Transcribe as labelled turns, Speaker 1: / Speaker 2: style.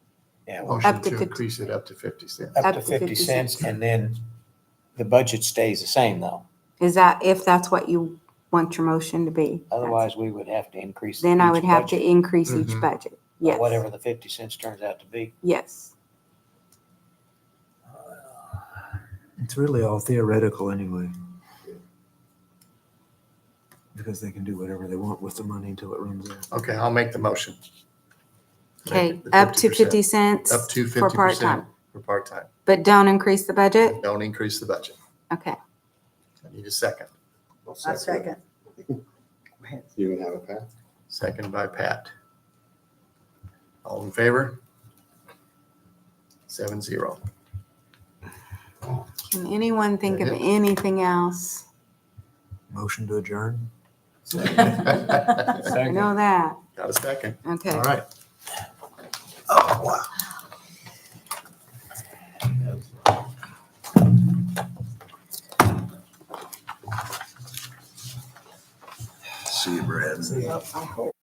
Speaker 1: Yeah, well,
Speaker 2: Motion
Speaker 3: Up
Speaker 2: to
Speaker 3: to fifty.
Speaker 2: increase it up to 50 cents.
Speaker 1: up to fifty cents and then the budget stays the same though.
Speaker 3: Is that, if that's what you want your motion to be? that's-
Speaker 1: Otherwise, we would have to increase.
Speaker 3: Then I would
Speaker 1: each
Speaker 3: have to
Speaker 1: budget
Speaker 3: increase each
Speaker 2: Mhm.
Speaker 3: budget.
Speaker 1: by
Speaker 3: Yes.
Speaker 1: Whatever the fifty cents turns out to be.
Speaker 3: Yes.
Speaker 4: It's really all theoretical anyway. Because they can do whatever they want with the money until it runs out.
Speaker 2: Okay, I'll make the motion. Make
Speaker 3: Okay,
Speaker 2: it
Speaker 3: up to
Speaker 2: 50%.
Speaker 3: fifty cents.
Speaker 2: Up to
Speaker 3: For
Speaker 2: 50%
Speaker 3: part-time,
Speaker 2: for part-time.
Speaker 3: but don't increase the budget?
Speaker 2: Don't increase the budget.
Speaker 3: Okay.
Speaker 2: I need a second.
Speaker 5: I second.
Speaker 6: You would have a pass.
Speaker 2: Second by Pat. All in favor? Seven zero.
Speaker 3: Can anyone think of
Speaker 2: That is-
Speaker 3: anything else?
Speaker 4: Motion to adjourn?
Speaker 2: Got
Speaker 3: I know that.
Speaker 2: a second.
Speaker 3: Okay.
Speaker 2: All right.
Speaker 4: See you, Brad.